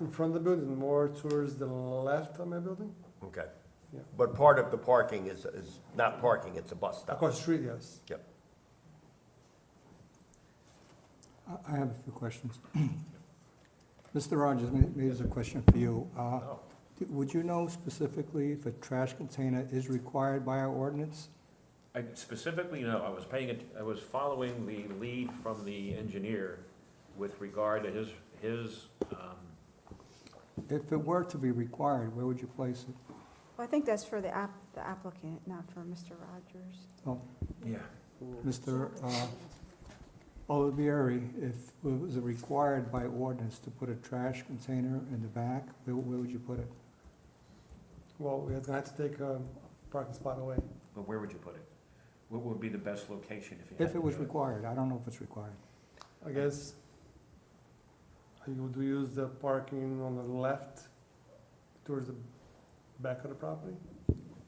in front of the building, more towards the left of my building, Okay. Yeah. But part of the parking is, is not parking, it's a bus stop. across the street, yes. Yep. I- I have a few questions. Mr. Rogers, may- maybe there's a question for you. Uh, Oh. d- Would you know specifically if a trash container is required by our ordinance? I specifically know, I was paying, att- I was following the lead from the engineer with regard to his, his, um, If it were to be required, where would you place it? Well, I think that's for the app, the applicant, not for Mr. Rogers. Oh, yeah, Mr. uh, Olivieri, if it was required by ordinance to put a trash container in the back, where where would you put it? Well, we're gonna have to take a parking spot away. but where would you put it? What would be the best location if you had to If it was do required, I don't know if it's required. I guess you do use the parking on the left towards the back of the property,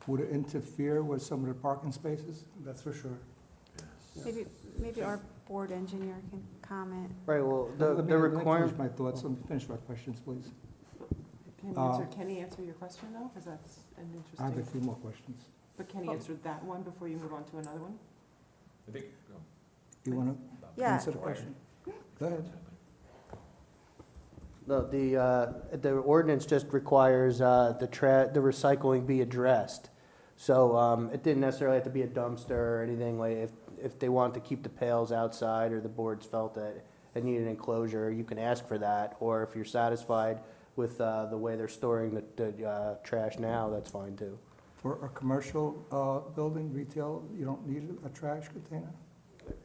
Would it interfere with some of the parking spaces? that's for sure. Maybe, maybe our board engineer can comment. Right, well, Let the, me- the let me requirement, Finish my thoughts, let me finish my questions, please. Can Uh, answer, can he answer your question though? Because that's an I have a interesting, few more questions. but can he answer that one before you move on to another one? I think, oh, You want to Yeah. answer the question? Go ahead. the, the, uh, the ordinance just requires, uh, the tra, the recycling be addressed. So, um, it didn't necessarily have to be a dumpster or anything, like, if, if they wanted to keep the pails outside or the boards felt that it needed enclosure, you can ask for that, or if you're satisfied with, uh, the way they're storing the, the, uh, trash now, that's fine too. For a commercial uh, building, retail, you don't need a trash container?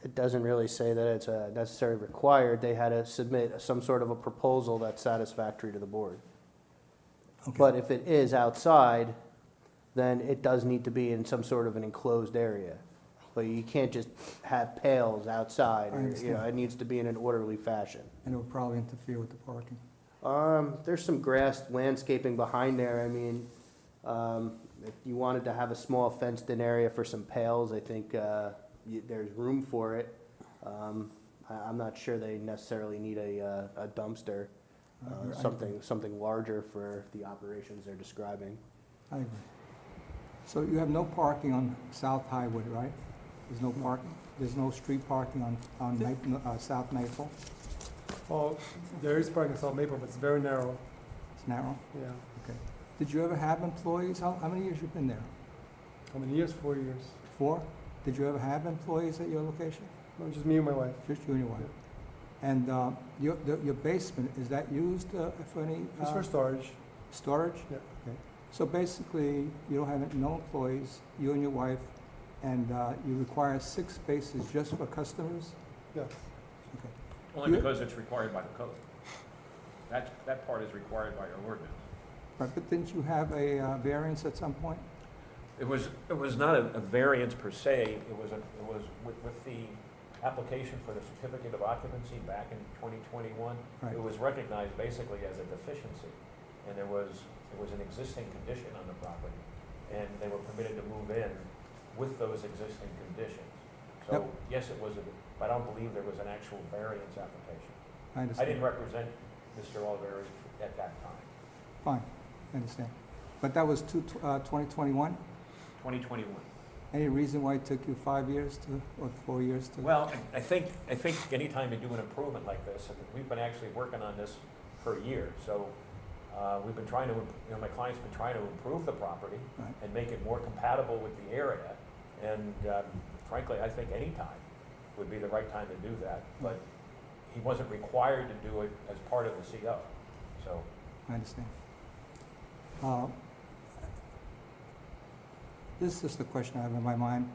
it doesn't really say that it's uh, necessarily required. They had to submit some sort of a proposal that's satisfactory to the board. Okay. But if it is outside, then it does need to be in some sort of an enclosed area. But you can't just have pails outside, I or, you know, understand. it needs to be in an orderly fashion. And it would probably interfere with the parking. Um, there's some grass landscaping behind there, I mean, um, if you wanted to have a small fenced-in area for some pails, I think, uh, you, there's room for it. Um, I, I'm not sure they necessarily need a, uh, a dumpster, I uh, agree. something, something larger for the operations they're describing. I agree. So you have no parking on South Highwood, right? There's no parking, there's no street parking on, on Ma- uh, South Maple? Oh, there is parking on Maple, but it's very narrow, It's narrow? yeah. Did you ever have employees? How, how many years you been there? How many years? Four years. Four? Did you ever have employees at your location? No, just me and my wife. Just you and your wife? And uh, your, the- your basement, is that used uh, for any Just uh, for storage. storage? Yeah. Okay. So basically, you don't have no employees, you and your wife, and uh, you require six spaces just for customers? Yes. Okay. Only because it's required by the code. That, that part is required by our ordinance. Right, But didn't you have a uh, variance at some point? It was, it was not a a variance per se, it was, a- it was with, with the application for the certificate of occupancy back in 2021, Right. it was recognized basically as a deficiency. And there was, it was an existing condition on the property, and they were permitted to move in with those existing conditions. Yep. So, yes, it was, a but I don't believe there was an actual variance application. I I understand. didn't represent Mr. Oliveri at that time. Fine, I understand. But that was two tw- uh, 2021? 2021. Any reason why it took you five years to, or four years to? Well, I I think, I think anytime you do an improvement like this, and we've been actually working on this for a year, so uh, we've been trying to, imp- you know, my client's been trying to improve the property Right. and make it more compatible with the area. And um, frankly, I think any time would be the right time to do that, but he wasn't required to do it as part of the CO. So I understand. Uh, This is the question I have in my mind.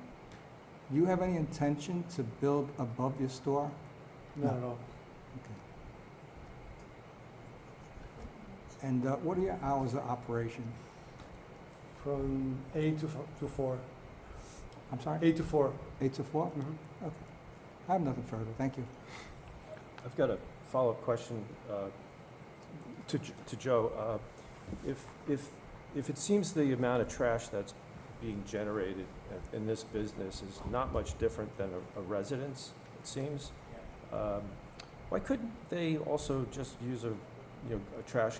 Do you have any intention to build above your store? Not at all. And uh, what are your hours of operation? From eight to fo- to four. I'm sorry, Eight to four. eight to four? Mhm. I have nothing further, thank you. I've got a follow-up question uh, to J- to Joe. Uh, If, if, if it seems the amount of trash that's being generated in- in this business is not much different than a- a residence, it seems, um, why couldn't they also just use a, you know, a trash